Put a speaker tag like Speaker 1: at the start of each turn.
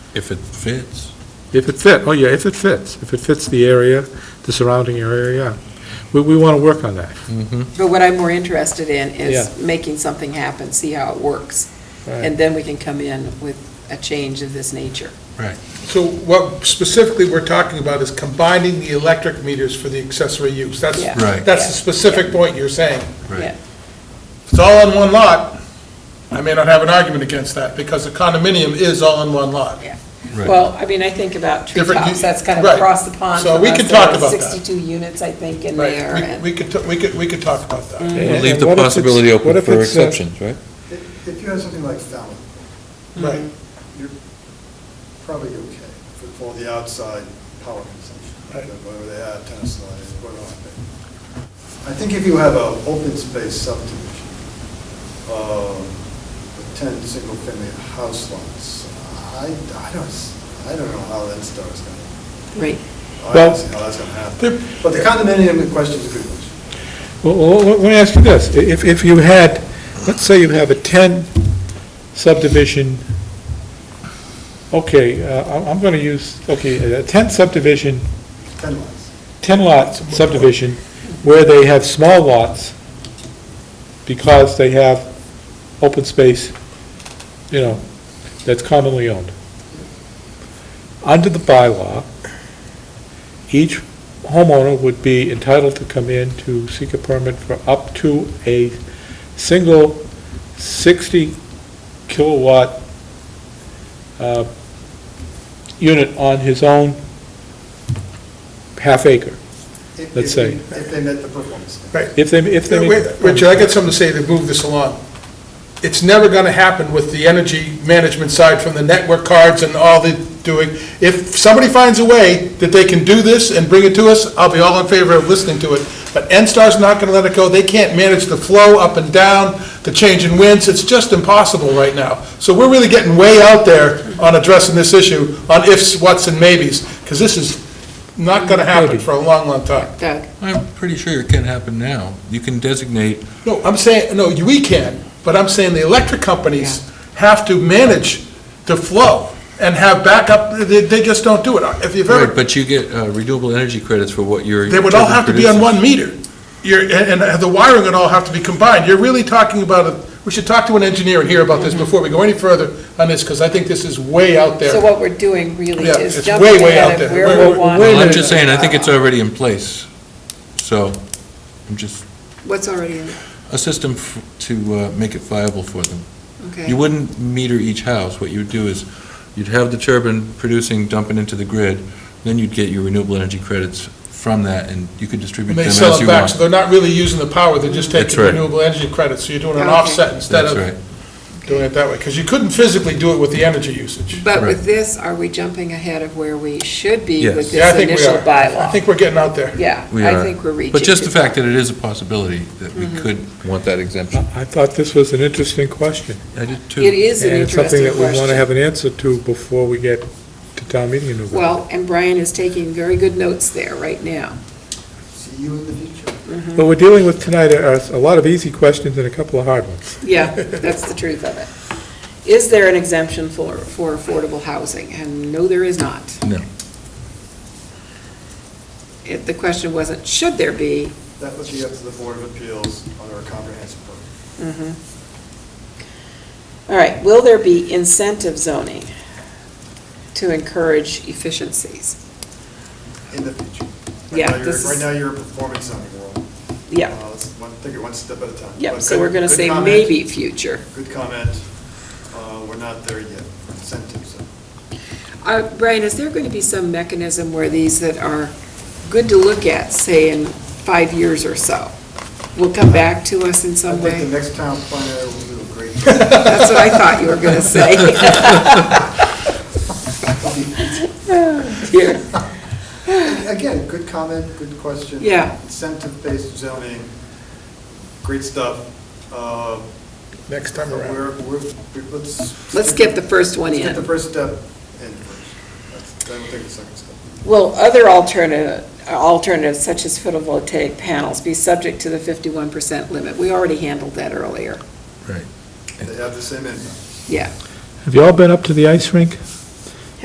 Speaker 1: If it fits.
Speaker 2: If it fit, oh yeah, if it fits, if it fits the area, the surrounding area, yeah. We, we want to work on that.
Speaker 3: But what I'm more interested in is
Speaker 2: Yeah.
Speaker 3: making something happen, see how it works, and then we can come in with a change of this nature.
Speaker 4: So what specifically we're talking about is combining the electric meters for the accessory use. That's,
Speaker 3: Yeah.
Speaker 1: Right.
Speaker 4: that's the specific point you're saying.
Speaker 1: Right.
Speaker 3: Yeah.
Speaker 4: If it's all on one lot, I may not have an argument against that, because a condominium is all in one lot.
Speaker 1: Right.
Speaker 3: Well, I mean, I think about
Speaker 4: Different
Speaker 3: treetops,
Speaker 4: u-
Speaker 3: that's kind of
Speaker 4: right.
Speaker 3: across the pond
Speaker 4: So
Speaker 3: from
Speaker 4: we
Speaker 3: us.
Speaker 4: could
Speaker 3: There
Speaker 4: talk
Speaker 3: are
Speaker 4: about that.
Speaker 3: Sixty-two units, I think, in there,
Speaker 4: Right,
Speaker 3: and
Speaker 4: we we could, t- we could, we could talk about that.
Speaker 2: And-
Speaker 5: Leave
Speaker 2: and
Speaker 5: the
Speaker 2: what if it's-
Speaker 5: possibility
Speaker 2: what
Speaker 5: open
Speaker 2: if
Speaker 5: for
Speaker 2: it's, uh,
Speaker 5: exceptions, right?
Speaker 6: If if you have something like Fallon,
Speaker 3: Mm-hmm.
Speaker 4: Right.
Speaker 6: probably okay for for the outside power consumption,
Speaker 4: Right.
Speaker 6: whatever they have, tennis lines, what else. I think if you have an open space subdivision, um, with 10 single-family house lots, I, I don't, s- I don't know how that starts going to,
Speaker 3: Right.
Speaker 6: I
Speaker 2: Well-
Speaker 6: don't see how that's going to
Speaker 4: There-
Speaker 6: happen. But the condominium question is a good question.
Speaker 2: Well, well, let me ask you this, if, if you had, let's say you have a 10 subdivision, okay, uh, I'm- I'm going to use, okay, a 10 subdivision,
Speaker 6: 10 lots.
Speaker 2: 10 lot subdivision, where they have small lots, because they have open space, you know, that's commonly owned. Under the bylaw, each homeowner would be entitled to come in to seek a permit for up to a single 60 kilowatt uh, unit on his own half acre, Let's
Speaker 6: If- if they-
Speaker 2: say.
Speaker 6: If they met the performance standard.
Speaker 4: Right.
Speaker 2: if they, if they. make-
Speaker 4: Wait, Richard, I got something to say to move this along. It's never going to happen with the energy management side from the network cards and all the doing. If somebody finds a way that they can do this and bring it to us, I'll be all in favor of listening to it. But NSTAR's not going to let it go. They can't manage the flow up and down, the change in winds. It's just impossible right now. So we're really getting way out there on addressing this issue on ifs, whats, and maybes, because this is not going to happen
Speaker 2: Maybe.
Speaker 4: for a long, long time.
Speaker 3: Doug?
Speaker 1: I'm pretty sure it can happen now. You can designate,
Speaker 4: No, I'm saying, no, you- we can, but I'm saying the electric companies have to manage the flow and have backup, they, they just don't do it. If you've
Speaker 1: right,
Speaker 4: ever,
Speaker 1: but you get uh, renewable energy credits for what you're.
Speaker 4: they would all have to be on
Speaker 1: producing.
Speaker 4: one meter. You're, and, and the wiring would all have to be combined. You're really talking about, a- we should talk to an engineer and hear about this before we go any further on this, because I think this is way out
Speaker 3: Mm-hmm. So
Speaker 4: there.
Speaker 3: what we're doing really
Speaker 4: Yeah,
Speaker 3: is
Speaker 4: it's
Speaker 3: jumping
Speaker 4: way, way out
Speaker 3: ahead of
Speaker 4: there.
Speaker 3: where
Speaker 4: Wait,
Speaker 3: we
Speaker 4: wait,
Speaker 3: want.
Speaker 1: Well,
Speaker 3: it.
Speaker 1: I'm just saying, I think it's already in place. So, I'm just,
Speaker 3: What's already in,
Speaker 1: a system f- to uh, make it viable for them. You
Speaker 3: okay.
Speaker 1: wouldn't meter each house. What you'd do is, you'd have the turbine producing, dumping into the grid, then you'd get your renewable energy credits from that, and you could distribute
Speaker 4: And
Speaker 1: them
Speaker 4: they
Speaker 1: as
Speaker 4: sell it
Speaker 1: you
Speaker 4: back, so
Speaker 1: want.
Speaker 4: they're not really using the power, they're just
Speaker 1: That's
Speaker 4: taking
Speaker 1: right.
Speaker 4: renewable energy credits, so you're doing an
Speaker 3: Okay.
Speaker 4: offset instead
Speaker 1: That's
Speaker 4: of
Speaker 1: right.
Speaker 4: doing it that way, because you couldn't physically do it with the energy usage.
Speaker 3: But
Speaker 1: Right.
Speaker 3: with this, are we jumping ahead of where we should be
Speaker 1: Yes.
Speaker 3: with
Speaker 4: Yeah, I
Speaker 3: this
Speaker 4: think we
Speaker 3: initial
Speaker 4: are. I
Speaker 3: bylaw?
Speaker 4: think we're getting out there.
Speaker 3: Yeah,
Speaker 1: We
Speaker 3: I
Speaker 1: are.
Speaker 3: think we're reaching. Mm-hmm.
Speaker 1: But just
Speaker 3: too
Speaker 1: the fact
Speaker 3: far.
Speaker 1: that it is a possibility that we could want that exemption.
Speaker 2: I thought this was an interesting question.
Speaker 1: I did too.
Speaker 3: It is an
Speaker 2: And it's something
Speaker 3: interesting
Speaker 2: that we want to have
Speaker 3: question.
Speaker 2: an answer to before we get to town meeting in November.
Speaker 3: Well, and Brian is taking very good notes there right now.
Speaker 6: See you in the future.
Speaker 2: What we're dealing with tonight are a lot of easy questions and a couple of hard ones.
Speaker 3: Yeah, that's the truth of it. Is there an exemption for, for affordable housing? And no, there is not.
Speaker 1: No.
Speaker 3: It, the question wasn't, should there be?
Speaker 6: That would be up to the Board of Appeals under a comprehensive permit.
Speaker 3: Mm-hmm. All right, will there be incentive zoning to encourage efficiencies?
Speaker 6: in the future. Right
Speaker 3: Yeah,
Speaker 6: now you're-
Speaker 3: this is-
Speaker 6: Right now, you're a performance zoning world.
Speaker 3: Yeah,
Speaker 6: Uh, Let's one- take it one step at a time.
Speaker 3: yeah,
Speaker 6: But
Speaker 3: so
Speaker 6: good-
Speaker 3: we're gonna
Speaker 6: good
Speaker 3: say
Speaker 6: comment,
Speaker 3: maybe future.
Speaker 6: Good comment. Uh, We're not there yet. Incentives.
Speaker 3: Uh, Brian, is there going to be some mechanism where these that are good to look at, say in five years or so, will come back to us in
Speaker 6: I
Speaker 3: some
Speaker 6: think the
Speaker 3: way?
Speaker 6: next town planner will do a great
Speaker 3: That's what I thought you were going to say. Dear.
Speaker 6: Again, good comment, good question.
Speaker 3: Yeah.
Speaker 6: Incentive-based zoning, great stuff. Uh,
Speaker 4: Next time around.
Speaker 6: We're, we're, we- let's.
Speaker 3: Let's get the first one
Speaker 6: Let's get
Speaker 3: in.
Speaker 6: the first step in first. That's- Then we'll take the second step.
Speaker 3: Will other alternative, alternatives such as photovoltaic panels be subject to the 51% limit? We already handled that earlier.
Speaker 6: They have the same impact.
Speaker 3: Yeah.
Speaker 2: Have you all been up to the ice rink?